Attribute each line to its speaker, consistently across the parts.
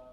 Speaker 1: Oh, Oh, uh,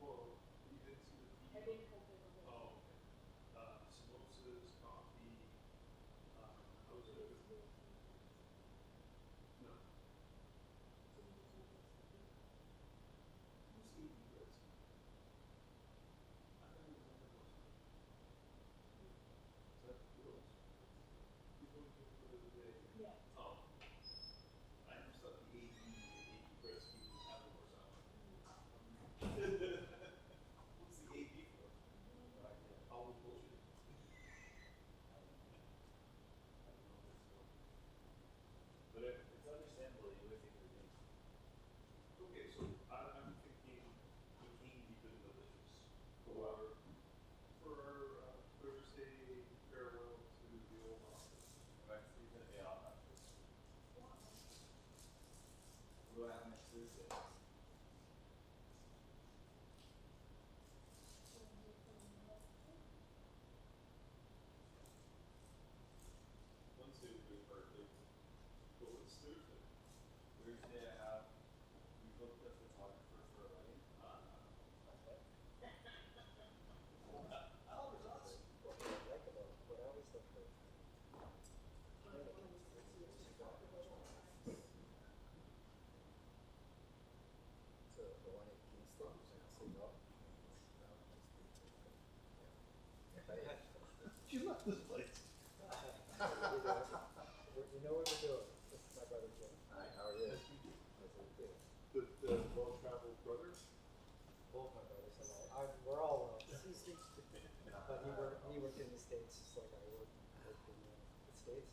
Speaker 1: Well, we did see the tea. Oh, okay. Uh, samosas, coffee, uh, I was at a- no. Who's eating this? I don't know what that was. Is that the girls? You're going to go to the day. Oh. I am stuck in eighty, eighty breast meat, half of us out. What's the AB for? All the bullshit. I don't know this one.
Speaker 2: But it, it's understandable that you would think they're being
Speaker 1: Okay, so I, I'm thinking zucchini been delicious for, for our uh, Thursday farewell to the old office.
Speaker 2: correctly that they all have this. What happened next Thursday?
Speaker 1: Wednesday would be perfect, but what's Thursday?
Speaker 2: Thursday I have, we booked a photographer for a wedding.
Speaker 1: Uh,
Speaker 2: Albert, awesome.
Speaker 1: you left this place.
Speaker 3: You know what we're doing. This is my brother Jim.
Speaker 2: Hi,
Speaker 3: how are you?
Speaker 1: The, the well-traveled brother?
Speaker 3: Both my brothers and I, I- we're all well. But he worked, he worked in the States, just like I worked, worked in the States.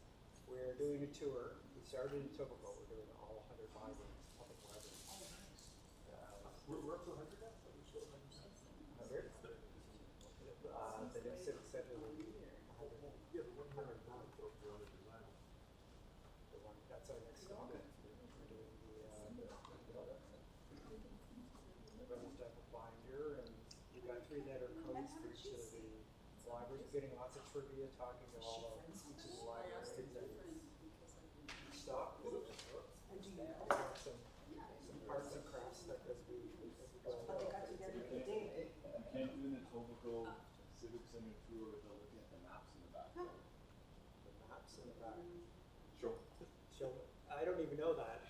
Speaker 3: We're doing a tour. We started in Tobago. We're doing all 100 libraries, public libraries. Uh,
Speaker 1: We're, we're up to a hundred now, so we're still at 100?
Speaker 3: 100? Uh, the new civic center will be there.
Speaker 1: Yeah, the one here in Vermont, though, for other design.
Speaker 3: The one, that's our next stop. We're doing the, uh, the, everyone's done a binder and we've got three letter codes for each of the libraries. We're getting lots of trivia, talking to all of each of the libraries and stop.
Speaker 4: And do you know?
Speaker 3: We have some, some arts and crafts that does be.
Speaker 4: But they got together
Speaker 2: You
Speaker 4: the day.
Speaker 2: can't- you can't do the Tobago Civic Center tour without looking at the maps in the back.
Speaker 3: Maps in the back.
Speaker 1: Sure.
Speaker 3: So, I don't even know that.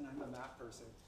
Speaker 2: And I'm
Speaker 3: a map person.